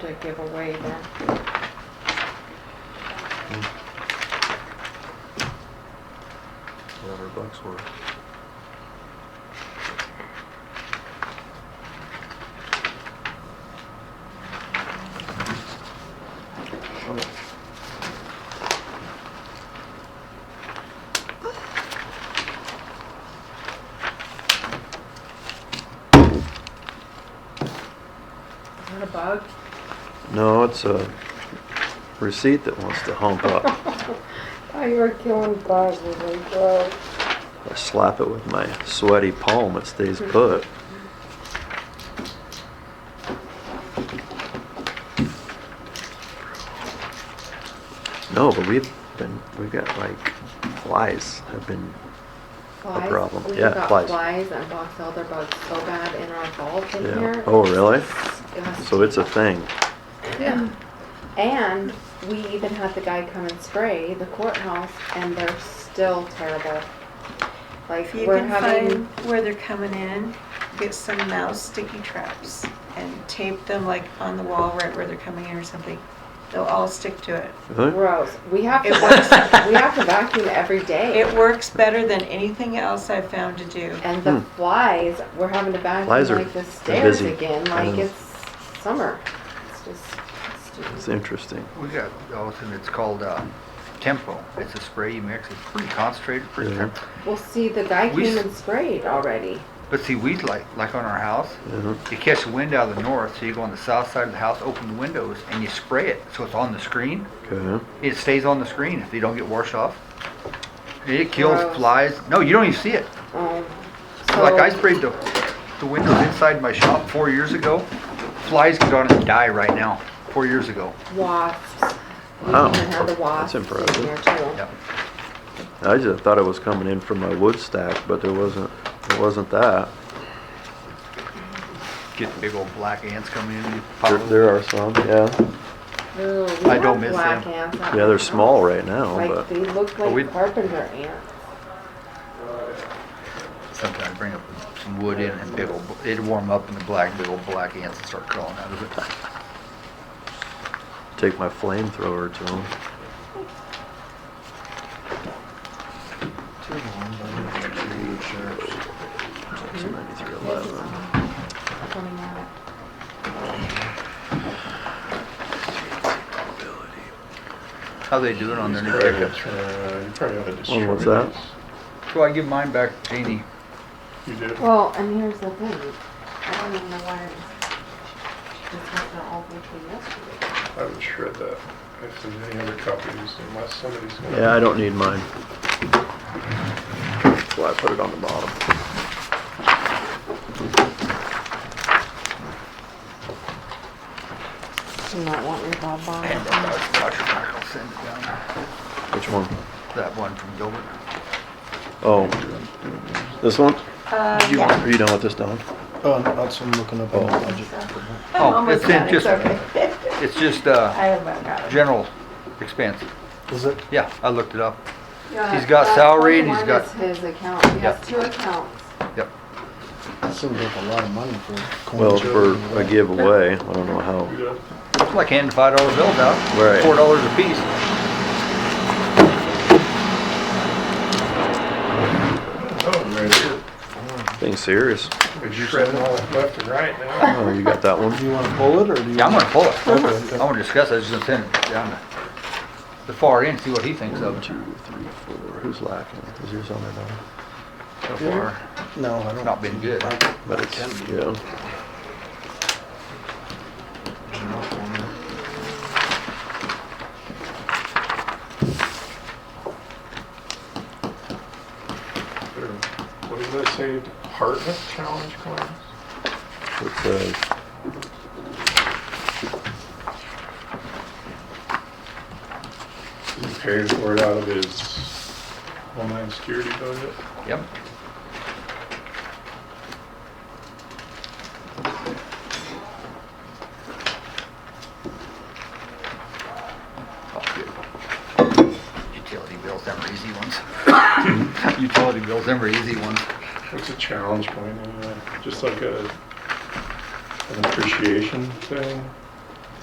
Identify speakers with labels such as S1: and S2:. S1: to give away then.
S2: whatever bucks were.
S1: Is that a bug?
S2: No, it's a receipt that wants to hump up.
S1: Oh, you were killing bugs, I was like, whoa.
S2: I slap it with my sweaty palm, it stays put. No, but we've been, we've got like flies have been,
S1: Flies?
S2: problem.
S1: We've
S2: Yeah,
S1: got
S2: flies.
S1: flies and box elder bugs so bad in our vault in
S2: yeah.
S1: here.
S2: Oh, really?
S1: Disgusting.
S2: So it's a thing.
S1: Yeah. And we even had the guy come and spray the courthouse and they're still terrible. Like,
S3: If you
S1: we're
S3: can
S1: having,
S3: find where they're coming in, get some mouse sticky traps and tape them like on the wall right where they're coming in or something. They'll all stick to it.
S2: Really?
S1: gross. We have to,
S3: It works.
S1: vac- we have to vacuum every day.
S3: It works better than anything else I've found to do.
S1: And the
S2: Hmm.
S1: flies, we're having to vacuum
S2: Flies are-
S1: like the
S2: are
S1: stairs
S2: busy.
S1: again,
S2: I
S1: like
S2: know.
S1: it's summer. It's just
S2: It's
S1: stupid.
S2: interesting.
S4: We got Allison, it's called uh, Tempo. It's a spray you mix. It's pretty concentrated, pretty
S2: Yeah.
S4: temp-
S1: Well, see, the guy
S4: We
S1: came
S4: s-
S1: and sprayed already.
S4: But see, we like like on our house.
S2: Yeah.
S4: You catch the wind out of the north, so you go on the south side of the house, open the windows, and you spray it. So it's on the screen.
S2: Okay.
S4: It stays on the screen if you don't get washed off. It kills
S1: Gross.
S4: flies. No, you don't even see it.
S1: Um,
S4: Like I
S1: so-
S4: sprayed the the windows inside my shop four years ago. Flies get on it and die right now. Four years ago.
S1: wasps. We
S2: Wow,
S1: even had the
S2: Oh, that's
S1: wasps in
S2: impressive.
S1: there too.
S4: Yep.
S2: I just thought it was coming in from my wood stack, but there wasn't, it wasn't that.
S4: Get the big old black ants coming in. and pop
S2: There,
S4: them.
S2: there are some, yeah.
S1: Ooh, we
S4: I don't
S1: have
S4: miss
S1: black
S4: them.
S1: ants out
S2: Yeah,
S1: there.
S2: they're small right now,
S1: Like,
S2: but
S1: they look
S4: we-
S1: like carpenter ants.
S4: Sometimes bring up some wood in and big old, it'd warm up in the black, big old black ants would start crawling out of it.
S2: take my flamethrower to them.
S1: This is coming out.
S4: How they doing on their new pickups?
S5: Uh, You probably ought to destroy
S2: Well,
S5: these.
S2: what's that?
S4: So I give mine back to Jeannie.
S5: You did?
S1: Well, and here's the thing, I don't even know why this happened all the way through yesterday.
S5: I would shred that. If there's any other copies, unless somebody's gonna.
S2: Yeah, I don't need mine. That's why I put it on the bottom.
S1: Do not want your Bob
S4: And
S1: Bob.
S4: then I'll watch her back, I'll send it down.
S2: Which one?
S4: That one from Gilbert.
S2: Oh, this one?
S3: Uh,
S4: You
S3: yeah.
S2: Are you done with this, Don?
S6: Oh, that's what I'm looking up on the budget.
S3: I'm
S4: Oh,
S3: almost
S4: it's in
S3: done, it's
S4: just-
S3: okay.
S4: It's just, uh,
S3: I haven't got it.
S4: general expense.
S6: Is it?
S4: Yeah, I looked it up. He's got salary and he's got-
S1: His account, he
S4: Yep.
S1: has two accounts.
S4: Yep.
S6: That seems like a lot of money for coin.
S2: Well, for
S6: joking,
S2: a
S6: but-
S2: giveaway, I don't know how.
S5: You did?
S4: It's like handing five dollar bills out.
S2: Right.
S4: Four dollars a piece.
S5: Oh, right here.
S2: Being serious.
S5: But you're shredding all that left and right now.
S2: Oh, you got that one?
S6: Do you want to pull it or do you?
S4: Yeah, I'm
S6: want-
S4: gonna pull it.
S6: Okay.
S4: I wanna discuss it, I was just gonna send it down to the far end, see what he thinks of it
S2: Two, three, four. Who's lacking? Is yours on there, Don?
S4: so far.
S6: No, I don't.
S4: Not been good.
S2: But it's, yeah.
S5: There. What did I say? Hartnett Challenge coins?
S2: It's uh, a
S5: He paid for it out of his online security budget.
S4: Yep. Oh, Utility bills, them are easy ones. Utility bills, them are easy ones.
S5: It's a challenge coin anyway, just like a, an appreciation thing.